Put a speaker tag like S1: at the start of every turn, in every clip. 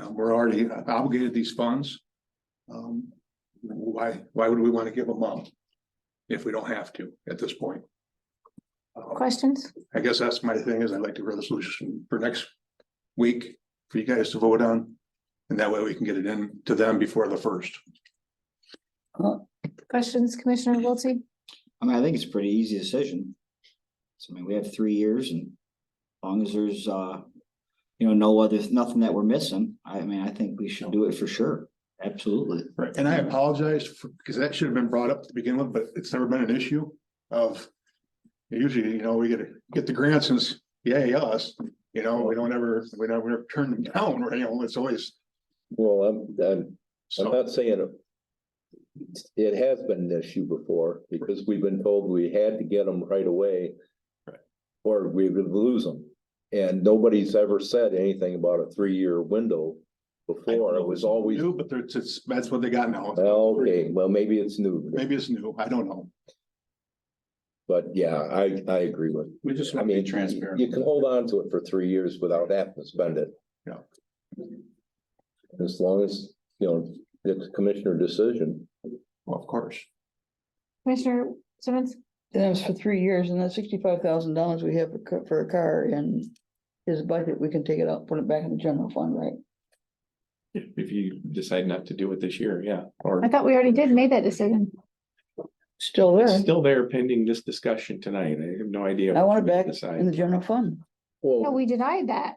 S1: Uh, we're already obligated these funds. Um, why, why would we want to give them up? If we don't have to at this point? Uh,
S2: Questions?
S1: I guess that's my thing is I'd like to hear the solution for next week for you guys to vote on. And that way we can get it in to them before the first.
S2: Questions, Commissioner Wiltie?
S3: I mean, I think it's a pretty easy decision. So I mean, we have three years and as long as there's uh, you know, no other, nothing that we're missing, I mean, I think we should do it for sure. Absolutely.
S1: Right. And I apologize for, because that should have been brought up to begin with, but it's never been an issue of. Usually, you know, we get, get the grants and it's, yay, us, you know, we don't ever, we don't ever turn them down, or, you know, it's always.
S4: Well, I'm, I'm, I'm
S1: So,
S4: not saying. it- It has been an issue before, because we've been told we had to get them right away. Or we would lose them, and nobody's ever said anything about a three-year window before, it was always, Uh,
S1: new, but there's, it's, that's what they got now.
S4: well, okay, well, maybe it's new,
S1: Maybe it's new, I don't know.
S4: but yeah, I, I agree with.
S5: We just
S4: I
S5: want to
S4: mean,
S5: be transparent.
S4: You can hold on to it for three years without having to spend it.
S1: Yeah.
S4: As long as, you know, it's a commissioner decision.
S1: Well, of course.
S2: Commissioner Simmons?
S6: And that was for three years, and that sixty-five thousand dollars we have for, ca- for a car in his budget, we can take it out, put it back in the general fund, right?
S5: If if you decide not to do it this year, yeah, or
S2: I thought we already did made that decision.
S6: Still
S5: it's
S6: there.
S5: still there pending this discussion tonight. I have no idea.
S6: I
S5: what
S6: want it
S5: we're gonna
S6: back in the
S5: Decide.
S6: general fund.
S2: No,
S4: Well,
S2: we denied that.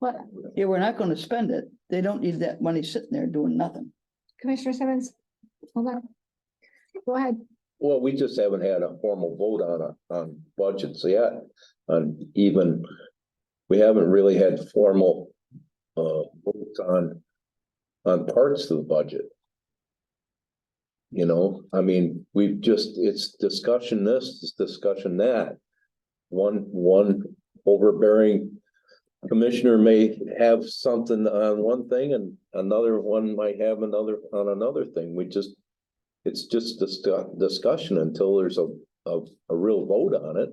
S2: What,
S6: Yeah, we're not gonna spend it. They don't need that money sitting there doing nothing.
S2: Commissioner Simmons? Hold on. Go ahead.
S4: well, we just haven't had a formal vote on a, on budgets yet, on even. We haven't really had formal, uh, votes on, on parts of the budget. You know, I mean, we've just, it's discussion this, it's discussion that. One, one overbearing commissioner may have something on one thing and another one might have another, on another thing. We just it's just discu- discussion until there's a, a, a real vote on it.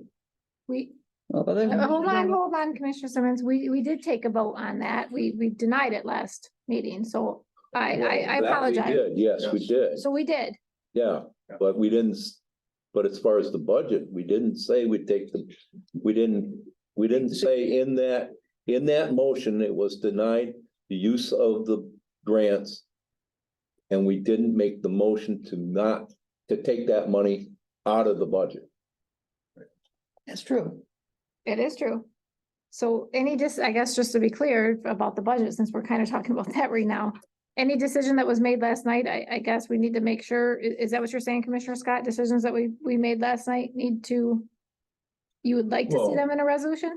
S2: We,
S6: Well, but
S2: uh, hold on,
S6: they-
S2: hold on, Commissioner Simmons. We, we did take a vote on that. We, we denied it last meeting, so I, I, I
S4: That we
S2: apologize.
S4: did, Yes, we did,
S2: So we did.
S4: yeah, but we didn't, s- but as far as the budget, we didn't say we'd take the, we didn't, we didn't say in that, in that motion, it was denied the use of the grants. And we didn't make the motion to not, to take that money out of the budget.
S6: That's true.
S2: It is true. So any dis, I guess, just to be clear about the budget, since we're kind of talking about that right now. Any decision that was made last night, I, I guess we need to make sure, i- is that what you're saying, Commissioner Scott? Decisions that we, we made last night need to. You would like to see
S4: Well-
S2: them in a resolution?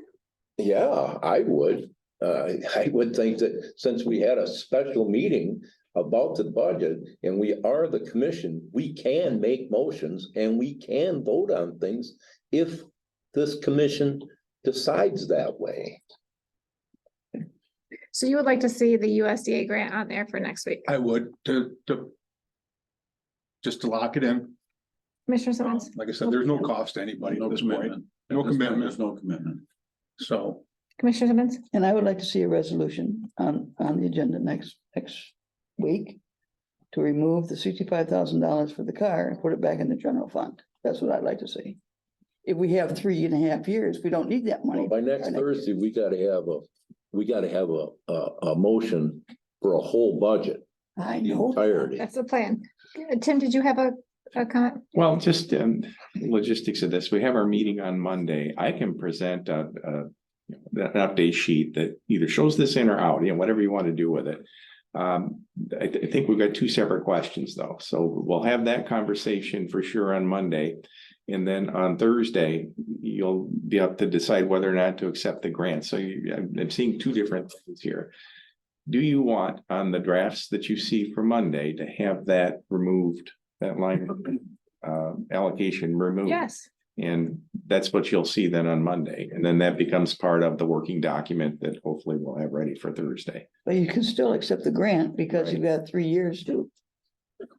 S4: Yeah, I would. Uh, I would think that since we had a special meeting about the budget and we are the commission, we can make motions and we can vote on things if this commission decides that way.
S2: So you would like to see the USDA grant on there for next week,
S1: I would to, to. Just to lock it in.
S2: Commissioner Simmons?
S1: Like I said, there's no cost to anybody
S5: No
S1: at this point,
S5: commitment.
S1: No
S5: At this point,
S1: commitment.
S5: There's no commitment.
S1: so.
S2: Commissioner Simmons?
S6: And I would like to see a resolution on, on the agenda next, next week to remove the sixty-five thousand dollars for the car and put it back in the general fund. That's what I'd like to see. If we have three and a half years, we don't need that money.
S4: Well, By next Thursday, we gotta have a, we gotta have a, a, a motion for a whole budget,
S6: I
S4: the
S6: know.
S4: entirety.
S2: That's the plan. Uh, Tim, did you have a, a comment?
S5: Well, just um logistics of this, we have our meeting on Monday. I can present a a. you know, An update sheet that either shows this in or out, you know, whatever you want to do with it. Um, I th- I think we've got two separate questions though, so we'll have that conversation for sure on Monday. And then on Thursday, you'll be up to decide whether or not to accept the grant. So you, I'm I'm seeing two different things here. Do you want on the drafts that you see for Monday to have that removed, that line uh, allocation removed?
S2: Yes.
S5: And that's what you'll see then on Monday. And then that becomes part of the working document that hopefully we'll have ready for Thursday.
S6: But you can still accept the grant because you've got three years to.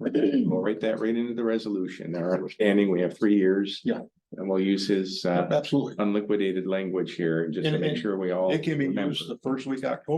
S5: We'll write that right into the resolution. Our understanding, we have three years.
S1: Yeah.
S5: And we'll use his uh,
S1: Absolutely.
S5: unliquidated language here just to
S1: And-
S5: make
S1: and
S5: sure we all.
S1: It can be
S5: remember.
S1: used the first week of October.